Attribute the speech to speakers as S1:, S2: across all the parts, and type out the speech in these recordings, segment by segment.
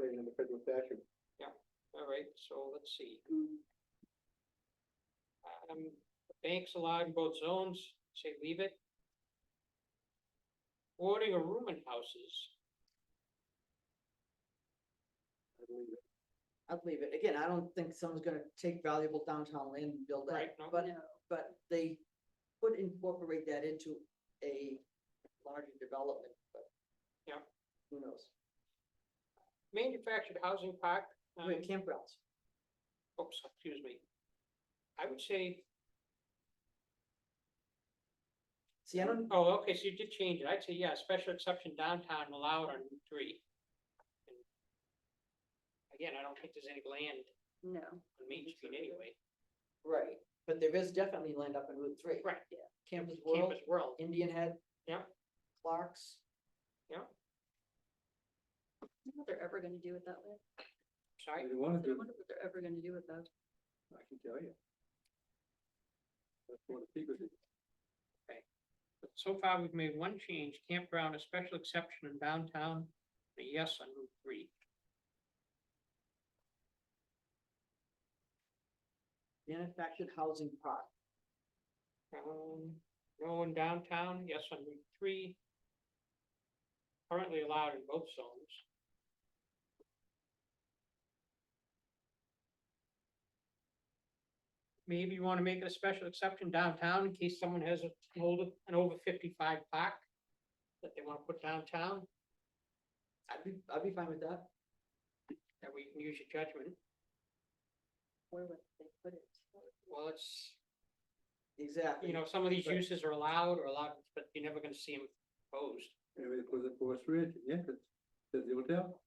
S1: in the federal statute.
S2: All right, so let's see, who? Um, banks allowed in both zones, say leave it. Boarding or rooming houses,
S1: I believe it.
S3: I'd leave it. Again, I don't think someone's gonna take valuable downtown land and build
S2: right,
S3: that,
S2: no,
S3: but, but they could incorporate that into a larger development, but.
S2: Yeah.
S3: Who knows?
S2: manufactured housing park. um,
S3: Wait, campgrounds.
S2: oops, excuse me. I would say,
S3: See, I don't,
S2: oh, okay, so you did change it, I'd say, yeah, special exception downtown allowed on Route three. And Again, I don't think there's any land
S4: No,
S2: on Main Street anyway,
S3: right, but there is definitely land up in Route Three.
S2: right,
S3: Campus World,
S2: campus world,
S3: Indian Head.
S2: Yeah.
S3: Clark's.
S4: I wonder what they're ever gonna do with that land.
S2: sorry,
S1: If you wanna
S4: I
S1: do,
S4: wonder what they're ever gonna do with that.
S1: I can tell you. That's one of the secrets.
S2: so far we've made one change, campground, a special exception in downtown, a yes on Route three.
S3: Manufactured Housing Park.
S2: Um, no in downtown, yes on Route three. Currently allowed in both zones. Maybe you wanna make it a special exception downtown in case someone has a- an older, an over fifty-five park that they wanna put downtown,
S3: I'd be, I'd be fine with that.
S2: that we can use your judgment.
S4: Where would they put it?
S2: Well, it's,
S3: Exactly.
S2: you know, some of these
S3: Right.
S2: uses are allowed or allowed, but you're never gonna see them proposed.
S1: Maybe they put it for a storage, yeah, that's, that's the hotel.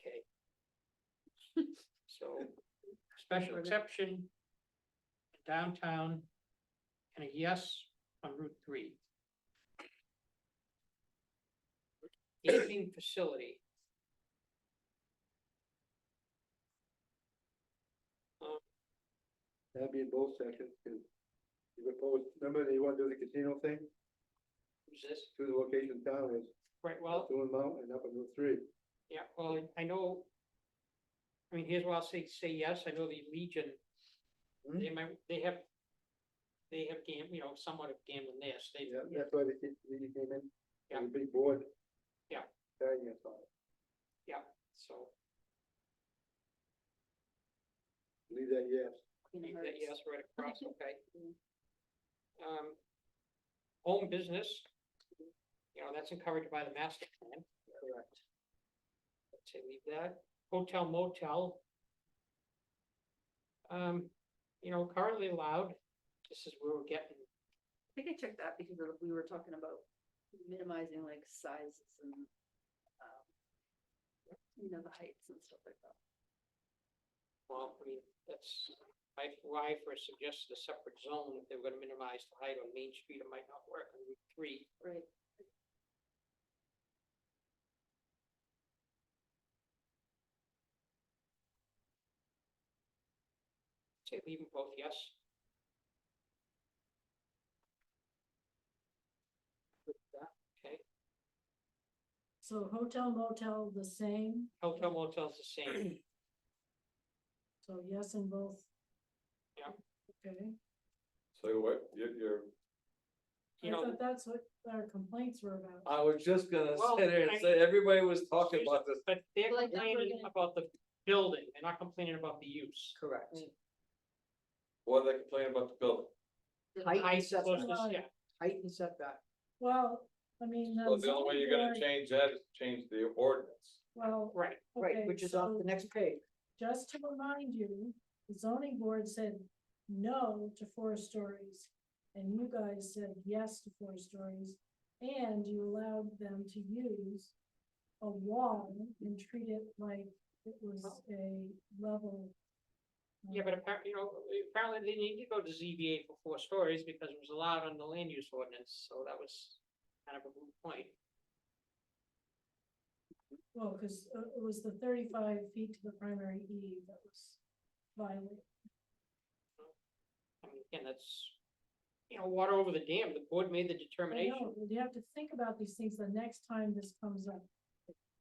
S2: Okay. So, special exception. Downtown. And a yes on Route three. Aging facility.
S1: That'd be in both sections, cause you propose, remember that you wanna do the casino thing,
S2: Who's this?
S1: two of the locations down is
S2: Right, well,
S1: Stone Mountain and up in Route Three.
S2: yeah, well, I know. I mean, here's why I'll say, say yes. I know the Legion.
S1: Hmm?
S2: They might, they have. They have gam, you know, somewhat of gambling there. so They
S1: Yeah, that's why they, keep- they came in,
S2: Yeah.
S1: and a big board.
S2: Yeah.
S1: Carrying us on it,
S2: so
S1: leave that, yes.
S4: Queen of
S2: Leave that yes
S4: Hearts.
S2: right across, okay.
S4: Mm.
S2: Um, home business, you know, that's encouraged by the master plan,
S3: Correct.
S2: let's say leave that, hotel motel. Um, you know, currently allowed, this is where we're getting,
S4: I think I checked that because of- we were talking about minimizing like sizes and, um, you know, the heights and stuff like that.
S2: well, I mean, that's. I, why for suggested a separate zone, if they were gonna minimize the height on Main Street, it might not work on Route three.
S4: Right.
S2: Say leave them both yes. Okay,
S5: So hotel motel the same,
S2: hotel motel's the same,
S5: so yes in both?
S2: Yeah.
S5: Okay,
S6: So what, you're, you're,
S2: you
S5: I
S2: know.
S5: thought that's what our complaints were about.
S6: I was just gonna
S2: Well,
S6: sit there and
S2: I-
S6: say, everybody was talking
S2: Susan,
S6: about this.
S2: But they're
S4: Like, that's what
S2: complaining
S4: it is.
S2: about the building, they're not complaining about the use.
S3: Correct.
S6: What are they complaining about the building?
S3: Height
S2: Height
S3: and
S2: is supposed
S3: setback,
S2: to-
S5: Right.
S2: yeah,
S3: height and setback.
S5: Well, I mean. um,
S6: Well, the only way you're gonna
S5: zoning board-
S6: change that is change the ordinance.
S5: Well,
S2: right,
S3: Right,
S5: okay,
S3: which is off
S5: so
S3: the next page.
S5: Just to remind you, the zoning board said no to four stories. And you guys said yes to four stories, and you allowed them to use a wall and treat it like it was
S3: Oh.
S5: a level.
S2: yeah, but apparently, you know, apparently they need to go to ZBA for four stories because it was allowed on the land use ordinance, so that was kind of a moot point.
S5: Well, because it was the thirty-five feet to the primary E that was violated.
S2: I mean, again, that's, you know, water over the dam, the board made the
S5: I
S2: determination,
S5: know, but You have to think about these things the next time this comes up.